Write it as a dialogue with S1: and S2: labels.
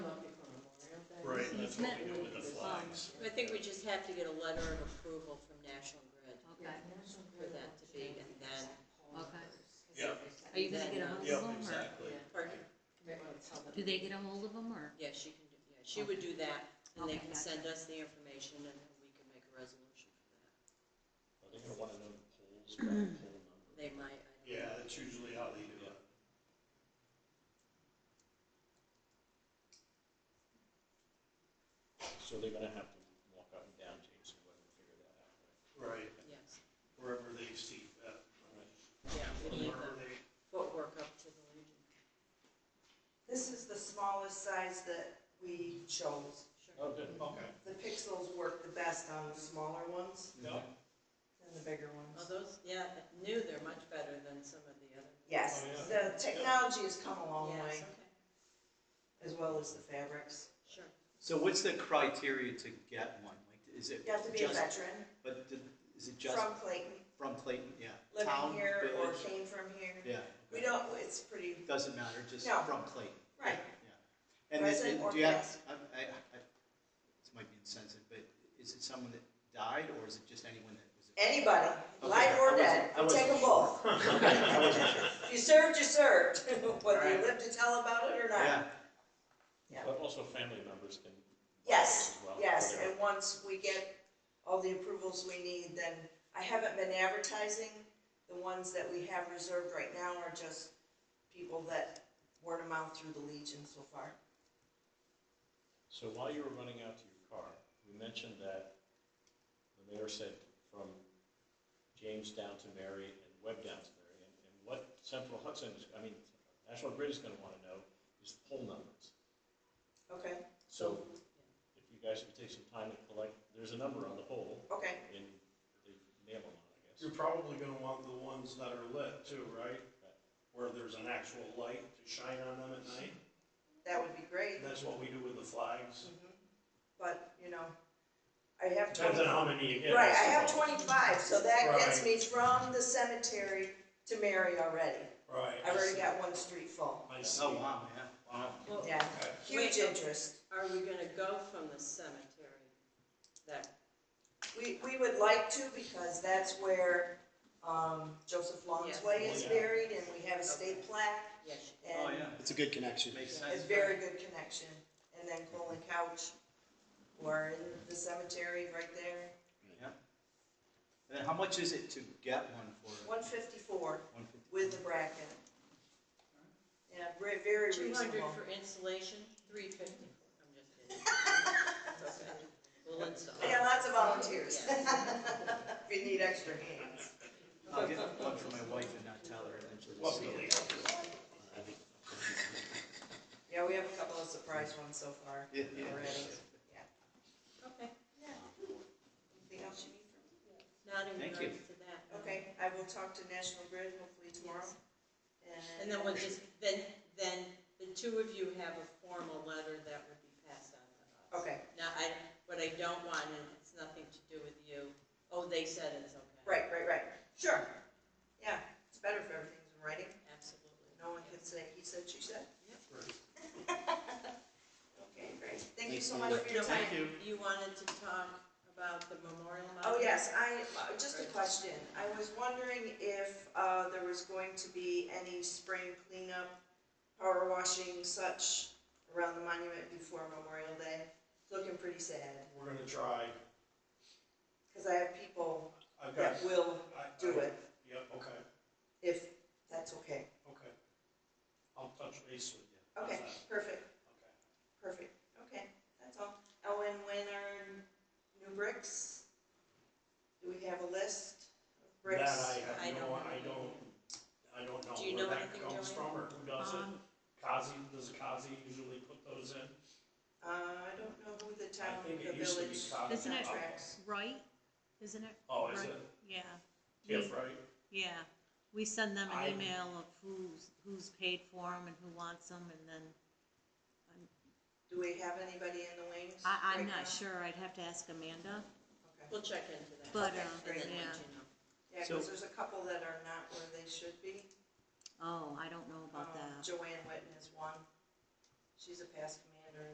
S1: That's what we do with the flags.
S2: I think we just have to get a letter of approval from National Grid
S3: Okay,
S2: for that to be, and then,
S3: okay.
S1: Yeah,
S3: Are you gonna get a hold of
S1: yeah,
S3: them, or
S1: exactly.
S2: pardon,
S3: do they get a hold of them, or?
S2: yeah, she can, do- yeah, she would do that, and they
S3: Okay,
S2: can
S3: gotcha.
S2: send us the information, and we can make a resolution for that.
S4: Are they gonna wanna know the polls, by the poll number?
S2: They might, I don't know.
S1: Yeah, that's usually how they do it.
S4: So they're gonna have to walk up and down James and Webber to figure that out, right?
S1: Right,
S2: yes,
S1: wherever they see that,
S2: yeah, we need
S1: wherever
S2: the
S1: they,
S2: footwork up to the Legion.
S5: This is the smallest size that we chose.
S2: Sure.
S4: good.
S1: okay.
S5: The pixels work the best on the smaller ones
S1: No,
S5: than the bigger ones.
S2: Oh, those, yeah, I knew they're much better than some of the other.
S5: Yes,
S1: Oh,
S5: the technology has come a long way,
S2: Yes, okay,
S5: as well as the fabrics.
S2: sure.
S6: So what's the criteria to get one? Like, is it
S5: You have to be a
S6: just,
S5: veteran
S6: but d- is it just
S5: from Clayton,
S6: from Clayton? Yeah. Town,
S5: living here or
S6: village?
S5: came from here.
S6: Yeah.
S5: We don't, it's pretty,
S6: Doesn't matter, just
S5: No.
S6: from Clayton.
S5: right,
S6: Yeah. And is
S5: Resident
S6: it,
S5: or
S6: do you have,
S5: past.
S6: I, I, I, this might be insensitive, but is it someone that died or is it just anyone that was? a-
S5: anybody,
S6: Okay,
S5: live
S6: I
S5: or
S6: wasn't-
S5: dead,
S6: I
S5: we take
S6: wasn't
S5: them both. If you served, you served, whether you live to tell about it or
S6: Yeah.
S5: not. Yeah.
S4: But also family members can.
S5: Yes,
S4: as well,
S5: Yes,
S4: whatever.
S5: and once we get all the approvals we need, then, I haven't been advertising. The ones that we have reserved right now are just people that word of mouth through the Legion so far.
S4: So while you were running out to your car, you mentioned that the mayor said from James down to Mary and Webb down to Mary. And, and what Central Hudson, is- I mean, National Grid is gonna wanna know is the poll numbers.
S5: Okay,
S4: So if you guys could take some time to collect, there's a number on the poll
S5: okay,
S4: and they nail them on, I guess.
S1: You're probably gonna want the ones that are lit too, right? Where there's an actual light to shine on them at night.
S5: that would be great,
S1: And that's what we do with the flags.
S5: but, you know, I have
S1: Depends
S5: twenty,
S1: on how many you get.
S5: right, I have
S1: suppose.
S5: twenty-five, so that gets
S1: Right.
S5: me from the cemetery to Mary already.
S1: Right.
S5: I've already got one street full,
S1: I see.
S6: Oh, wow, yeah. Wow.
S2: Well,
S5: yeah,
S1: Okay.
S5: huge
S2: Wait, so-
S5: interest.
S2: Are we gonna go from the cemetery, that
S5: We, we would like to because that's where, um, Joseph
S2: Yes.
S5: Longway is
S1: Yeah.
S5: buried and we have a state plaque
S2: Yes,
S6: Oh,
S5: and
S6: yeah.
S4: It's a good connection.
S6: Makes
S5: a
S6: sense.
S5: very good connection. And then Cole and Couch who are in the cemetery right there,
S6: Yeah. And then how much is it to get one for?
S5: one fifty-four
S6: 150?
S5: with the bracket. Yeah, very, very
S2: two hundred
S5: reasonable.
S2: for installation, three fifty. I'm just kidding. It's okay. We'll install.
S5: We got lots of volunteers.
S2: Yes.
S5: If you need extra hands.
S6: I'll get one for my wife and not tell her and then she'll
S1: Well,
S6: see
S1: really,
S6: it.
S5: Yeah, we have a couple of surprise ones so far
S6: Yeah,
S5: already.
S6: yeah.
S2: Okay,
S5: Anything else you need from me?
S2: not in
S6: Thank
S2: regards to
S6: you.
S2: that. no.
S5: Okay, I will talk to National Grid hopefully tomorrow.
S2: And then we'll just, then, then the two of you have a formal letter that would be passed on to us.
S5: Okay,
S2: Now, I, what I don't want, and it's nothing to do with you, oh, they said it's okay.
S5: right, right, right, sure. Yeah, it's better if everything's in writing,
S2: Absolutely.
S5: no one can say he said, she said.
S1: Right.
S5: Okay, great, thank you
S6: Thanks,
S5: so
S6: Mary.
S5: much for your
S2: No,
S5: time.
S6: you.
S2: You wanted to talk about the memorial monument?
S5: Oh, yes, I, just a question, I was wondering if, uh, there was going to be any spring cleanup, power washing such around the monument before Memorial Day, It's looking pretty sad,
S1: We're gonna try.
S5: cause I have people
S1: I've got.
S5: that will
S1: I- I-
S5: do it,
S1: Yep, okay,
S5: if that's okay.
S1: okay. I'll touch base with you. How's
S5: Okay,
S1: that?
S5: perfect,
S1: Okay.
S5: perfect, okay, that's all. Oh, and when are new bricks? Do we have a list of bricks?
S1: That I
S2: I
S1: have no,
S2: don't know.
S1: I don't, I don't
S2: Do you
S1: know where
S2: know
S1: that
S2: anything,
S1: comes
S2: Joanne?
S1: from or who does it.
S3: Um,
S1: Kazi, does Kazi usually put those in?
S5: Uh, I don't know who the town,
S1: I think
S5: the
S1: it used to be
S5: village
S1: Kazi.
S3: Isn't it-
S5: contracts.
S3: Right, isn't it?
S1: Oh, is
S3: Right.
S1: it?
S3: Yeah.
S1: Yeah,
S3: We-
S1: right?
S3: Yeah, we send them
S1: I-
S3: an email of who's, who's paid for them and who wants them, and then,
S5: Do we have anybody in the wings?
S3: I, I'm
S5: right
S3: not
S5: now?
S3: sure, I'd have to ask Amanda,
S5: Okay.
S2: We'll check into that.
S3: but,
S5: Okay,
S3: uh,
S2: And
S5: great.
S2: then
S3: yeah,
S2: let you know.
S5: Yeah,
S6: So-
S5: cause there's a couple that are not where they should be.
S3: oh, I don't know about
S5: Um,
S3: that.
S5: Joanne Witten is one, she's a past